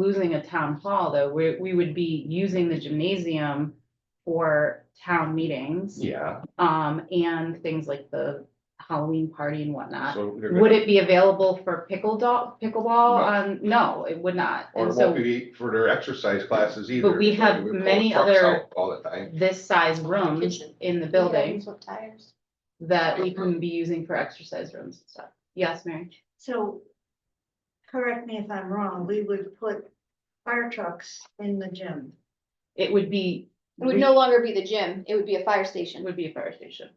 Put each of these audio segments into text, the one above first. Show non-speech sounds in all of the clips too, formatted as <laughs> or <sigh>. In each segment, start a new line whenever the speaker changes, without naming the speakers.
losing a town hall, though, we, we would be using the gymnasium for town meetings,
Yeah,
um, and things like the Halloween party and whatnot.
so. they're
Would
gonna-
it be available for pickleball, pickleball? Um, no, it would not.
Or
And
it
so
won't be for their exercise classes either.
But we
so
have
we pull
many
trucks
other-
out All the time.
this size rooms
Kitchen.
in the building
With tires.
that we can be using for exercise rooms and stuff. Yes, Mary?
So, correct me if I'm wrong, we would put fire trucks in the gym.
It would be,
It would no longer be the gym, it would be a fire
it
station.
would be a fire station,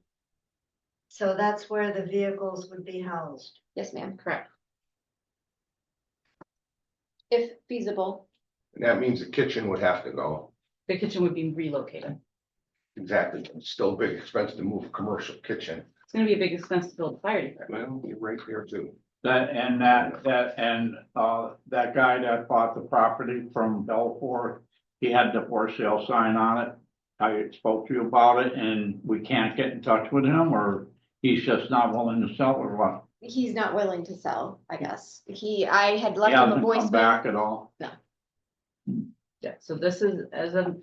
So that's where the vehicles would be housed.
Yes, ma'am,
correct?
if feasible.
And that means the kitchen would have to go.
The kitchen would be relocated.
Exactly. It's Still a big expense to move a commercial kitchen.
It's gonna be a big expense to build a fire department.
Well, you're right there too.
That, and that, that, and, uh, that guy that bought the property from Belfort, he had the for sale sign on it. I spoke to you about it and we can't get in touch with him or he's just not willing to sell or what?
He's not willing to sell, I guess. He, I had
He
left him a
hasn't come
voicemail.
back at all.
Yeah, so this is, as of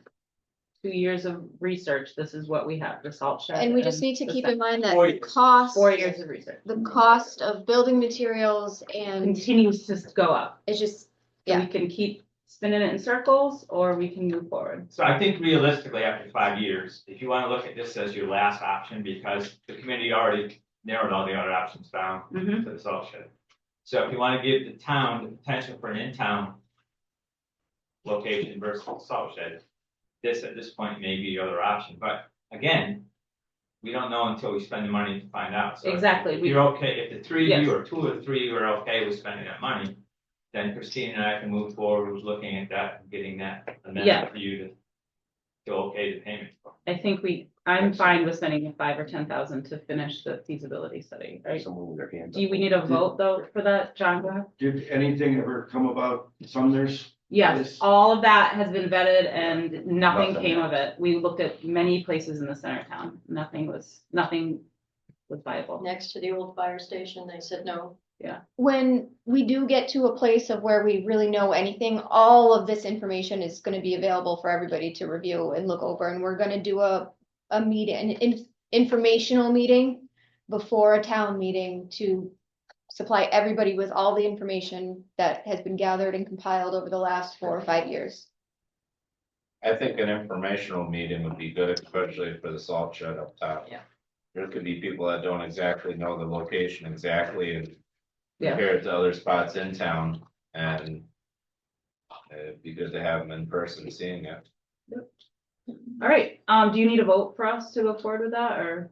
two years of research, this is what we have, the salt shed.
And we just need to
the
keep
sec-
in mind that
Four
the
years.
cost,
Four years of research
the cost of building materials and
continues to go up.
it's just,
So
Yeah.
We can keep spinning it in circles or we can move forward.
So I think realistically, after five years, if you wanna look at this as your last option, because the committee already narrowed all the other options down
Mhm.
to the salt shed. So if you wanna give the town the potential for an in-town location versus the salt shed, this at this point may be the other option, but again, we don't know until we spend the money to find out, so. if-
Exactly,
If
we-
you're okay, if the three of
Yes.
you or two or three of you are okay with spending that money, then Christine and I can move forward with looking at that, and getting that
Yeah.
amendment for you to to okay the payment.
I think we, I'm fine with spending the five or ten thousand to finish the feasibility study, right?
Someone with their hands.
Do we need a vote though for that, John? Go ahead.
Did anything ever come about Sumner's?
Yes,
Yes.
all of that has been vetted and nothing
Nothing.
came of it. We looked at many places in the center of town. Nothing was, nothing was viable.
next to the old fire station, they said no.
when we do get to a place of where we really know anything, all of this information is gonna be available for everybody to review and look over, and we're gonna do a, a meeting, an in- informational meeting before a town meeting to supply everybody with all the information that has been gathered and compiled over the last four or five years.
I think an informational meeting would be good, especially for the salt shed up top.
Yeah.
There could be people that don't exactly know the location exactly and
Yeah.
compare it to other spots in town and it'd be good to have them in person seeing it.
All right, um, do you need a vote for us to go forward with that or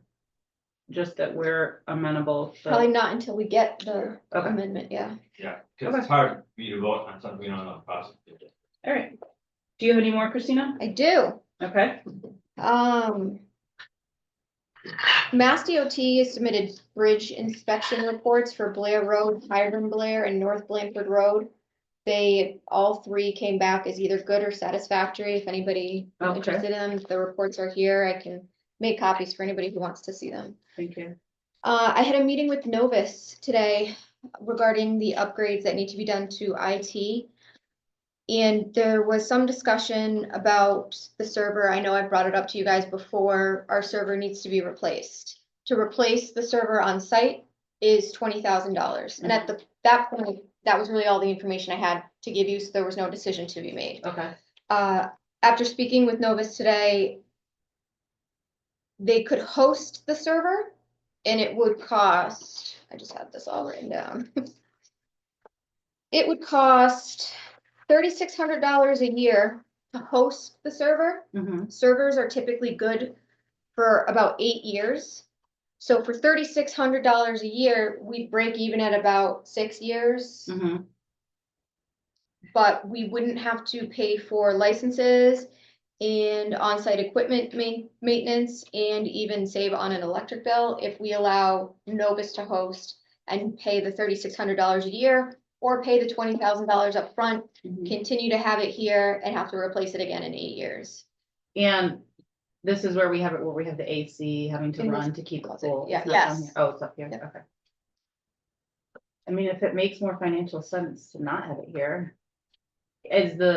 just that we're amenable? to-
Probably not until we get the
Okay.
amendment, yeah.
Yeah, because it's hard for you to vote on something we don't know the process.
All right. Do you have any more, Christina?
I do.
Okay,
Um. Mass DOT has submitted bridge inspection reports for Blair Road, Hiram Blair, and North Blanford Road. They, all three came back as either good or satisfactory. If anybody is
Okay.
interested in them, the reports are here. I can make copies for anybody who wants to see them.
thank you.
Uh, I had a meeting with Novus today regarding the upgrades that need to be done to IT. And there was some discussion about the server. I know I brought it up to you guys before. Our server needs to be replaced. To replace the server on site is twenty thousand dollars. And at the, that point, that was really all the information I had to give you, so there was no decision to be made
Okay,
uh, after speaking with Novus today, they could host the server and it would cost, I just had this all written down. <laughs> It would cost thirty-six hundred dollars a year to host the server.
hmm
Servers are typically good for about eight years. So for thirty-six hundred dollars a year, we break even at about six years
hmm
but we wouldn't have to pay for licenses and on-site equipment main, maintenance and even save on an electric bill if we allow Novus to host and pay the thirty-six hundred dollars a year or pay the twenty thousand dollars upfront, continue to have it here and have to replace it again in eight years.
And this is where we have it, where we have the AC having to
In this
run to keep it
closet,
cool. It's
yeah.
not down
Yes.
here. Oh, it's up here,
Yep.
okay. I mean, if it makes more financial sense to not have it here, is the